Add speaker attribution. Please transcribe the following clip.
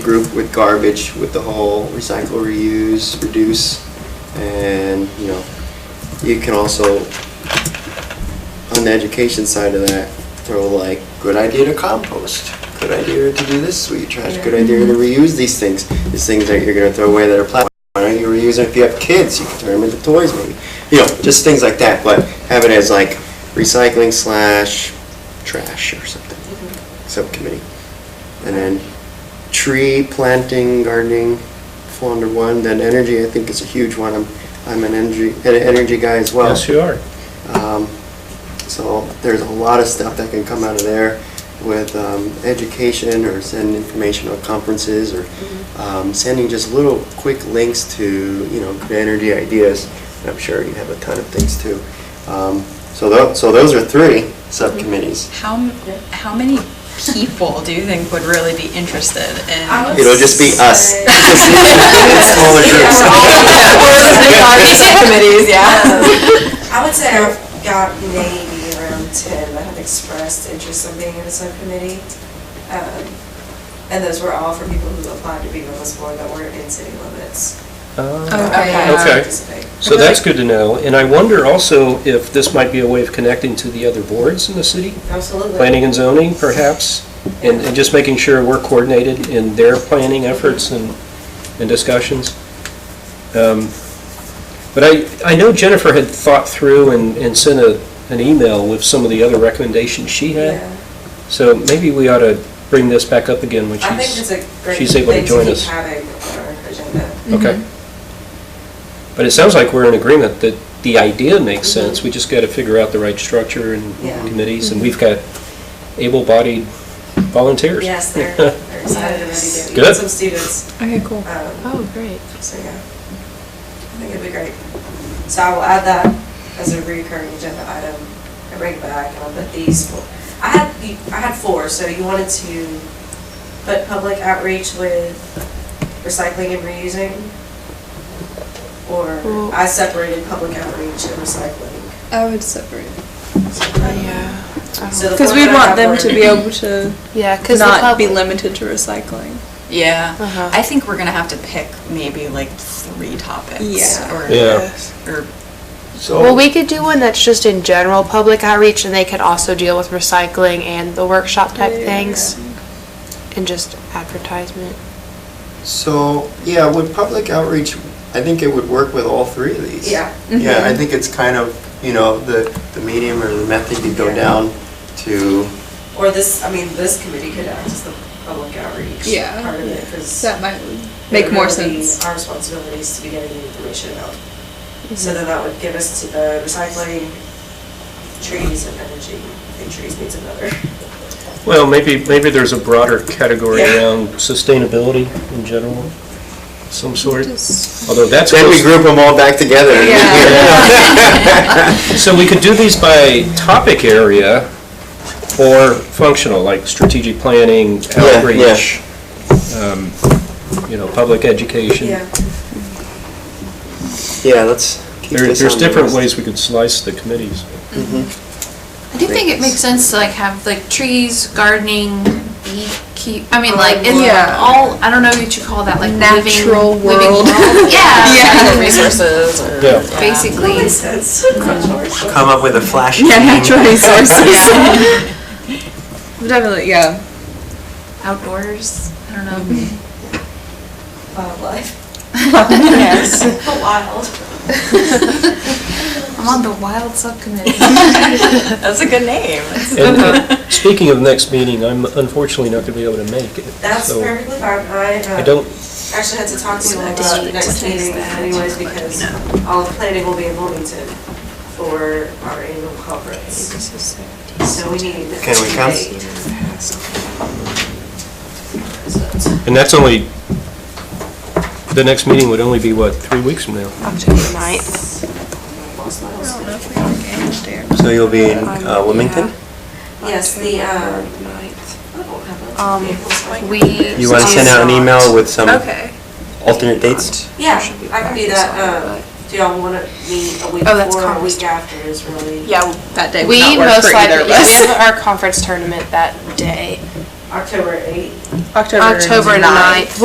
Speaker 1: group with garbage, with the whole recycle, reuse, reduce, and, you know, you can also, on the education side of that, throw like, good idea to compost, good idea to do this sweet trash, good idea to reuse these things, these things that you're gonna throw away that are plastic, why don't you reuse them if you have kids, you can turn them into toys maybe, you know, just things like that, but have it as like recycling slash trash or something, subcommittee. And then tree planting, gardening, fall under one. Then energy, I think is a huge one. I'm, I'm an energy, an energy guy as well.
Speaker 2: Yes, you are.
Speaker 1: Um, So there's a lot of stuff that can come out of there with um, education or sending information on conferences or um, sending just little quick links to, you know, good energy ideas. And I'm sure you have a ton of things too. Um, So tho, so those are three subcommittees.
Speaker 3: How, m- how many people do you think would really be interested in?
Speaker 1: It'll just be us.
Speaker 4: say-
Speaker 1: Just Smaller groups.
Speaker 3: committees,
Speaker 4: I would say I've got maybe around ten that have expressed interest in being in a subcommittee. Um, And those were all for people who applied to be on this board that weren't in city limits.
Speaker 3: Okay.
Speaker 2: Okay.
Speaker 4: Participate.
Speaker 2: So that's good to know, and I wonder also if this might be a way of connecting to the other boards in the city,
Speaker 4: Absolutely.
Speaker 2: planning and zoning perhaps, and and just making sure we're coordinated in their planning efforts and, and discussions. Um, But I, I know Jennifer had thought through and, and sent a, an email with some of the other recommendations she had,
Speaker 4: Yeah.
Speaker 2: so maybe we ought to bring this back up again when she's.
Speaker 4: I think it's a great
Speaker 2: she's able to
Speaker 4: thing
Speaker 2: join
Speaker 4: to keep
Speaker 2: us.
Speaker 4: having on our agenda.
Speaker 2: Okay.
Speaker 4: Mm-hmm.
Speaker 2: But it sounds like we're in agreement that the idea makes sense, we just got to figure out the right structure and
Speaker 4: Yeah. Mm-hmm.
Speaker 2: committees, and we've got able-bodied volunteers.
Speaker 4: Yes, they're, they're excited and ready to.
Speaker 2: Good.
Speaker 4: Some students,
Speaker 5: Okay, cool.
Speaker 4: um,
Speaker 5: Oh, great.
Speaker 4: so yeah. I think it'd be great. So I will add that as a recurring agenda item. I bring it back and I'll put these, four- I had, you- I had four, so you wanted to put public outreach with recycling and reusing? Or
Speaker 5: Well-
Speaker 4: I separated public outreach and recycling.
Speaker 6: I would separate.
Speaker 4: So the
Speaker 6: Because
Speaker 4: four
Speaker 6: we'd
Speaker 4: that I
Speaker 6: want
Speaker 4: have
Speaker 6: them
Speaker 4: were-
Speaker 6: to be able to
Speaker 5: Yeah, because
Speaker 6: not be limited to recycling.
Speaker 3: Yeah,
Speaker 5: Uh-huh.
Speaker 3: I think we're gonna have to pick maybe like three topics.
Speaker 6: Yeah.
Speaker 3: or-
Speaker 2: Yeah.
Speaker 3: Or,
Speaker 5: Well, we could do one that's just in general public outreach, and they could also deal with recycling and the workshop type
Speaker 6: Yeah.
Speaker 5: things, and just advertisement.
Speaker 1: So, yeah, with public outreach, I think it would work with all three of these.
Speaker 4: Yeah.
Speaker 1: Yeah, I think it's kind of, you know, the, the medium or the method you go
Speaker 4: Yeah.
Speaker 1: down to,
Speaker 4: Or this, I mean, this committee could act as the public outreach
Speaker 6: Yeah.
Speaker 4: part of it, because.
Speaker 6: That might make more sense. Mm-hmm.
Speaker 4: Our responsibilities to be getting the information out. So then that would give us to the recycling, trees and energy. I think trees needs another.
Speaker 2: Well, maybe, maybe there's a broader category
Speaker 4: Yeah.
Speaker 2: around sustainability in general, some sort,
Speaker 6: Just-
Speaker 2: although that's.
Speaker 1: then we group them all back together.
Speaker 2: So we could do these by topic area or functional, like strategic planning,
Speaker 1: yeah.
Speaker 2: outreach, um, you know, public education.
Speaker 1: Yeah, let's keep
Speaker 2: There-
Speaker 1: this
Speaker 2: There's
Speaker 1: on the
Speaker 2: different
Speaker 1: list.
Speaker 2: ways we could slice the committees.
Speaker 1: Mm-hmm.
Speaker 7: I do think it makes sense to like have like trees, gardening, beekeep. I mean, like it's
Speaker 6: Yeah.
Speaker 7: all. I don't know what you call that. Like
Speaker 6: Natural
Speaker 7: living, living
Speaker 6: world.
Speaker 7: yeah.
Speaker 3: yeah, resources or.
Speaker 2: Yeah.
Speaker 4: That
Speaker 7: Basically.
Speaker 4: makes sense. Controversial.
Speaker 1: Come up with a flash.
Speaker 6: resources. Definitely, yeah.
Speaker 7: Outdoors. I don't know.
Speaker 6: Mm-hmm.
Speaker 4: Wildlife.
Speaker 6: Yes.
Speaker 4: The wild.
Speaker 7: I'm on the wild subcommittee.
Speaker 3: That's a good name. That's-
Speaker 2: And uh, speaking of next meeting, I'm unfortunately not going to be able to make it.
Speaker 4: That's
Speaker 2: so
Speaker 4: perfectly fine. I, uh,
Speaker 2: I don't,
Speaker 4: Actually had to talk to you about the next meeting anyways because all of planning will be in Wilmington for our annual conference. So we need.
Speaker 1: Can we come?
Speaker 4: come?
Speaker 2: and that's only, the next meeting would only be, what, three weeks from now?
Speaker 6: Mm-hmm.
Speaker 5: October ninth.
Speaker 1: So you'll be in uh, Wilmington?
Speaker 4: Yes, the, um, I don't have a-
Speaker 5: Um,
Speaker 4: April's-
Speaker 7: we.
Speaker 1: You want to send out an email with some
Speaker 6: Okay.
Speaker 1: alternate dates?
Speaker 4: Yeah, I can do that. Um, do y'all want to meet a week
Speaker 6: Oh, that's
Speaker 4: before or a
Speaker 6: conference.
Speaker 4: week after is really?
Speaker 6: Yeah, that day
Speaker 5: We most likely, yeah, we have our conference tournament that day,
Speaker 8: October eighth.
Speaker 4: October
Speaker 5: October
Speaker 4: ninth.
Speaker 5: ninth.